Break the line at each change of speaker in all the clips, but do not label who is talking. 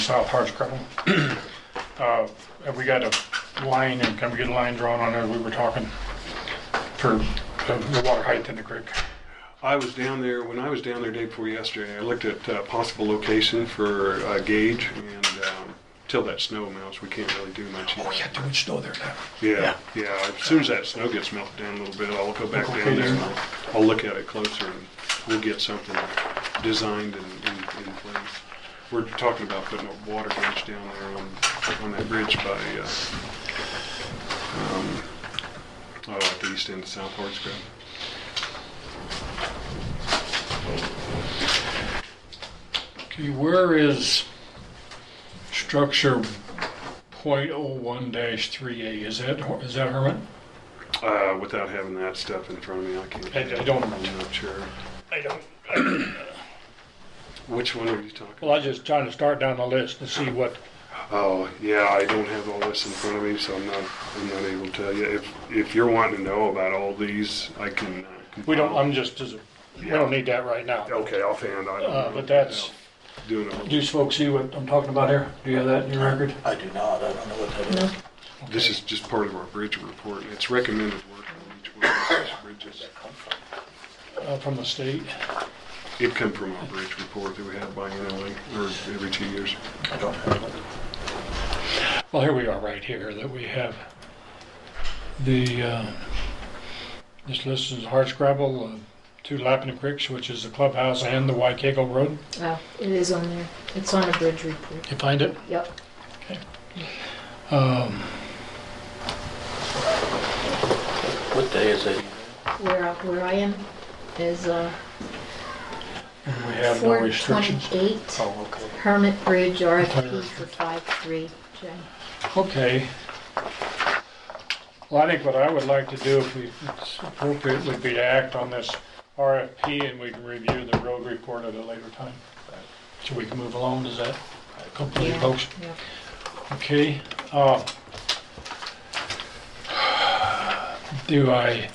South Harsh Gravel. Uh, Have we got a line, and can we get a line drawn on there? We were talking for the the water height in the creek.
I was down there, when I was down there day before yesterday, I looked at uh, possible location for a gauge and um, till that snow melts, we can't really do much. yet.
Oh, yeah, there was snow there now.
Yeah, yeah, as soon as that snow gets melted down a little bit, I'll go back
Okay,
down there and
there.
I'll- I'll look at it closer and we'll get something designed and in, in place. We're talking about putting a water bridge down there on, on that bridge by, uh, um, oh, at the east end of South Harts Grove.
Okay, where is structure .01-3A? Is that, is that Hermit?
Uh, without having that stuff in front of me, I can't.
I- I don't-
I'm not sure.
I don't.
Which one are you talking?
Well, I was just trying to start down the list to see what,
Oh, yeah, I don't have all this in front of me, so I'm not, I'm not able to tell you. If, if you're wanting to know about all these, I can. uh,
we don't,
compile.
I'm just, we don't need that right now.
Okay, offhand, I don't
Uh,
know.
But that's,
Doing a-
do you folks see what I'm talking about here? Do you have that in your record?
I do not, I don't know what that is.
this is just part of our bridge report, and it's recommended work on each one of these bridges.
Uh, From the state?
It come from our bridge report that we have biannually, or every two years.
I don't have it.
Well, here we are, right here, that we have the, uh, this list is Hardscrabble, uh, two Lappin Creeks, which is the clubhouse and the Waikego Road.
Oh, it is on there. It's on a bridge report.
You find it?
Yep.
Um,
What day is it?
Where, I- where I am is, uh,
and we have no
four
restrictions.
twenty-eight
Oh, okay.
Hermit Bridge RFP for five-three, Jen.
Okay. Well, I think what I would like to do, if we, if it's appropriate, would be to act on this RFP and we can review the road report at a later time. So we can move along, does that complete,
Yeah,
folks?
yeah.
Okay, uh, do I,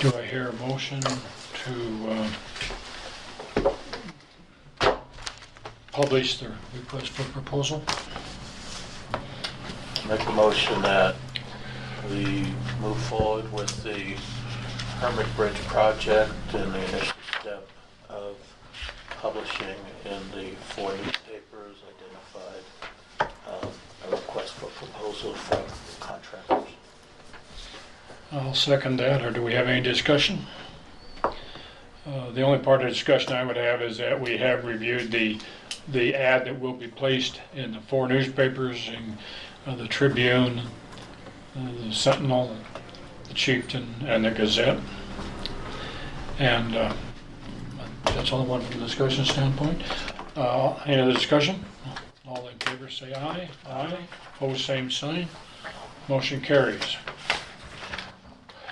do I hear a motion to, uh, publish the request for proposal?
Make a motion that we move forward with the Hermit Bridge project and the initial step of publishing in the four newspapers identified, um, a request for proposal from contractors.
I'll second that, or do we have any discussion? Uh, The only part of discussion I would have is that we have reviewed the, the ad that will be placed in the four newspapers, in uh, the Tribune, uh, the Sentinel, the Chieftain, and the Gazette. And uh, that's all I want from a discussion standpoint. Uh, Any other discussion? All in favor, say aye. Aye. Opposed, same sign. Motion carries.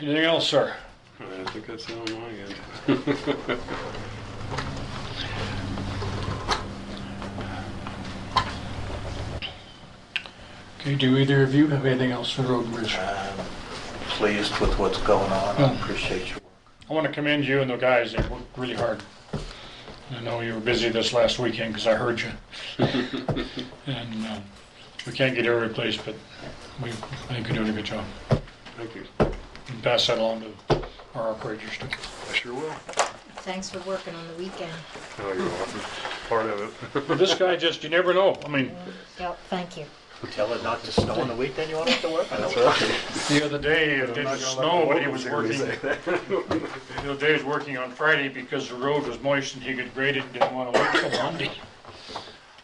Anything else, sir?
All right, I think that's all on my end.
Okay, do either of you have anything else for road and bridge?
I'm pleased with what's going on, I appreciate your work.
I want to commend you and the guys, they worked really hard. I know you were busy this last weekend because I heard you. And uh, we can't get every place, but we, I think you're doing a good job.
Thank you.
And pass that along to our operators too.
I sure will.
Thanks for working on the weekend.
Oh, you're welcome. Part of it.
But This guy just, you never know, I mean.
Yep, thank you.
Tell her not to snow on the weekend, you want her to work? I know.
The other day, it didn't snow, but he was working, the other day he was working on Friday because the road was moist and he could grade it and didn't want to wait till Monday.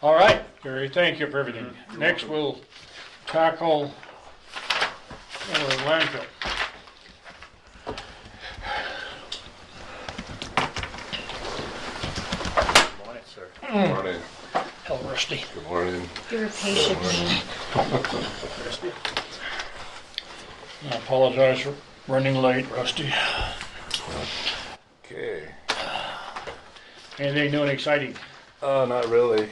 All right, Gary, thank you for everything. Next, we'll tackle uh, landfill.
Good morning, sir.
Morning,
Hell, Rusty.
good morning.
You're a patient man.
I apologize for running late, Rusty.
Okay.
Anything new and exciting?
Uh, not really.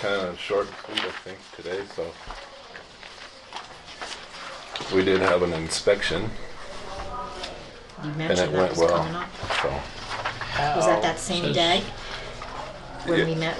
Kind of short and sweet, I think, today, so. We did have an inspection,
You
and it
mentioned that
went
was
well.
Oh.
coming up.
So,
Was that that same day? When we met